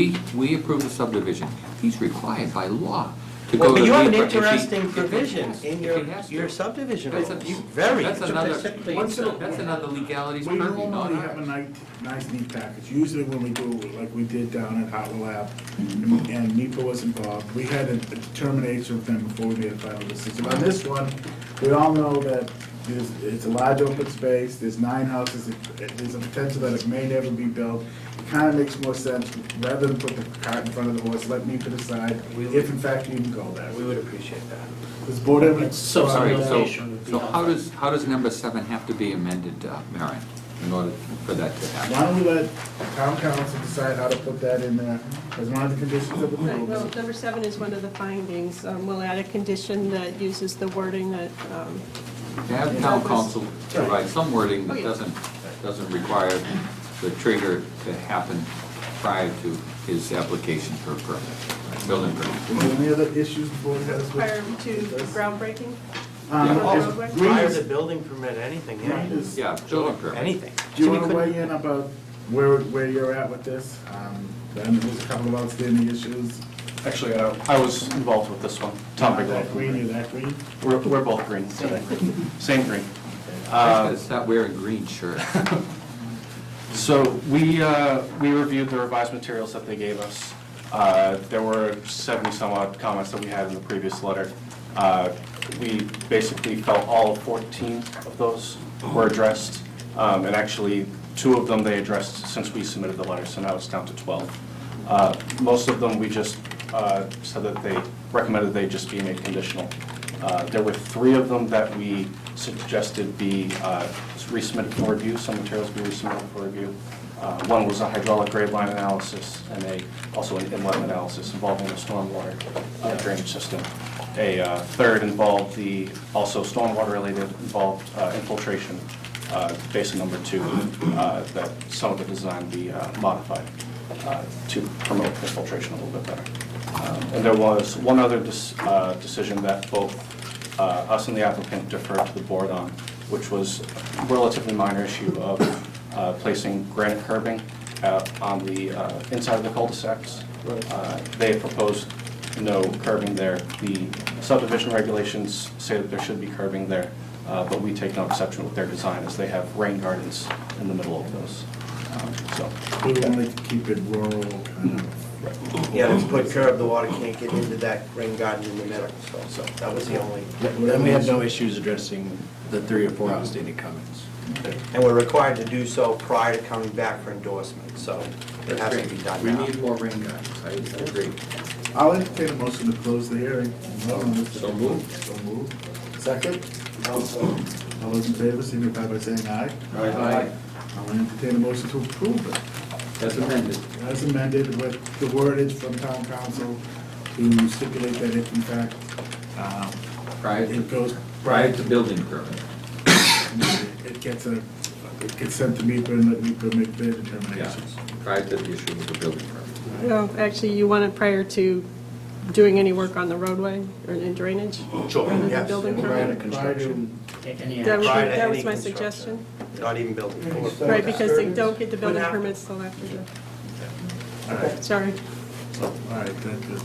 We, we approve the subdivision. He's required by law to go Well, to but the. you have an if he- if interesting he provision has- in if your, he has to. your subdivision That's rules, a- you- very That's interesting. another, specifically that's said. another legalities We purview, not normally have a ours. nice, nice neat package, usually when we do, like we did down at Hot Lab, and NEPA was involved, we had a a determination of them before we made a final decision. On this one, we all know that there's, it's a large open space, there's nine houses, it- it- there's a potential that it may never be built. It kinda makes more sense, rather than put the cart in front of the horse, let NEPA decide if in fact you can go there. We would appreciate that. This board ever. So Sorry, so, Regulation would be so how helpful. does, how does number seven have to be amended, uh, Marion, in order for that to happen? Why don't we let town council decide how to put that in there as one of the conditions of Right, well, approval? number seven is one of the findings. Um, We'll add a condition that uses the wording that, um, To have town council provide some wording Oh, that yeah. doesn't, doesn't require the trigger to happen prior to his application for a permit, building permit. Any other issues before we have this? prior to groundbreaking. Um, Yeah. if Prior Green Prior is- to building permit, anything, Green yeah, is- Yeah, building permit. anything. Do you So we want to couldn't- weigh in about where, where you're at with this? Um, Then there's a couple of outstanding issues. Actually, I I was involved with this one, Tom Bigelow. That green, is that green? We're, we're both green today, same green. I Uh, just gotta stop wearing green shirts. So we, uh, we reviewed the revised materials that they gave us. Uh, There were 70-some odd comments that we had in the previous letter. Uh, We basically felt all 14 of those were addressed, Um, and actually, two of them they addressed since we submitted the letter, so now it's down to 12. Uh, Most of them, we just uh, said that they recommended they just be made conditional. Uh, There were three of them that we suggested be uh, resubmitted for review, some materials be resubmitted for review. Uh, One was a hydraulic grade line analysis and a, also an inlet analysis involving the stormwater uh, drainage system. A uh, third involved the, also stormwater related, involved uh, infiltration, uh, basin number two, uh, that some of the design be uh, modified uh, to promote infiltration a little bit better. Um, And there was one other dis- uh, decision that both uh, us and the applicant deferred to the board on, which was a relatively minor issue of uh, placing granite curbing uh, on the uh, inside of the cul-de-sacs. Uh, They proposed no curbing there. The subdivision regulations say that there should be curbing there, uh, but we take no exception with their design as they have rain gardens in the middle of those. Um, So, We wanted to keep it rural, kind of. Yeah, let's put curb, the water can't get into that rain garden in the middle, so, so that was the only. Then we had no issues addressing the three or four outstanding comments. And we're required to do so prior to coming back for endorsement, so it has to be done We now. need more rain gardens, I agree. I'll entertain a motion to close the hearing. So moved. So moved. Second? All those in favor, signify by saying aye. Aye. I'll entertain a motion to approve it. That's amended. As amended with the wordage from town council to stipulate that if in fact, um, Prior to- it goes. Prior to building permit. It gets a, it gets sent to MIPA and let MIPA make their determinations. Prior to the issue of the building permit. Well, actually, you want it prior to doing any work on the roadway or in drainage? Sure, rather than yes. building Prior to permit? construction. Any That was, Prior to that any was my construction. suggestion, Not even building. right, because they don't get the building What happened? permits till after the, All right, sorry. all right, that's good.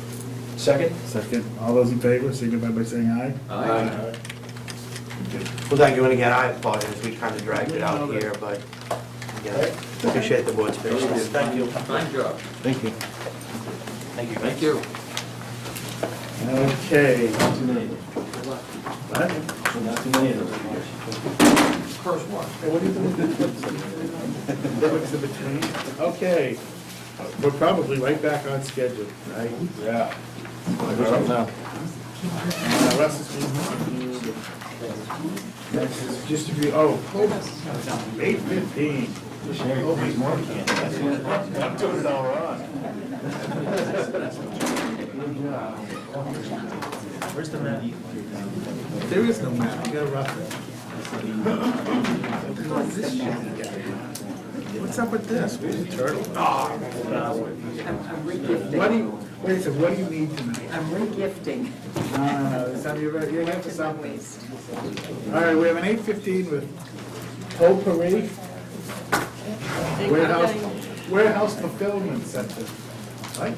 Second? Second, all those in favor, signify by saying aye. Aye. Well, thank you, and again, I apologize, we kind of dragged it out here, but, again, appreciate the board's patience. Thank you. Fine job. Thank you. Thank you. Thank you. Okay. What? Not too many of those. First one. Hey, what do you think? That was the between. Okay, we're probably right back on schedule, right? Yeah. Uh, Russ is being reviewed. Next is distribute, oh, eight fifteen. I'm doing it all wrong. Where's the map? There is no map, you gotta rough it. What's up with this? Where's the turtle? I'm I'm What do regifting. you, wait a second, what do you need tonight? I'm regifting. No, no, no, some, you're, you're after Some something. waste. All right, we have an eight fifteen with Potpourri Thank you. Warehouse, Warehouse Fulfillment Center.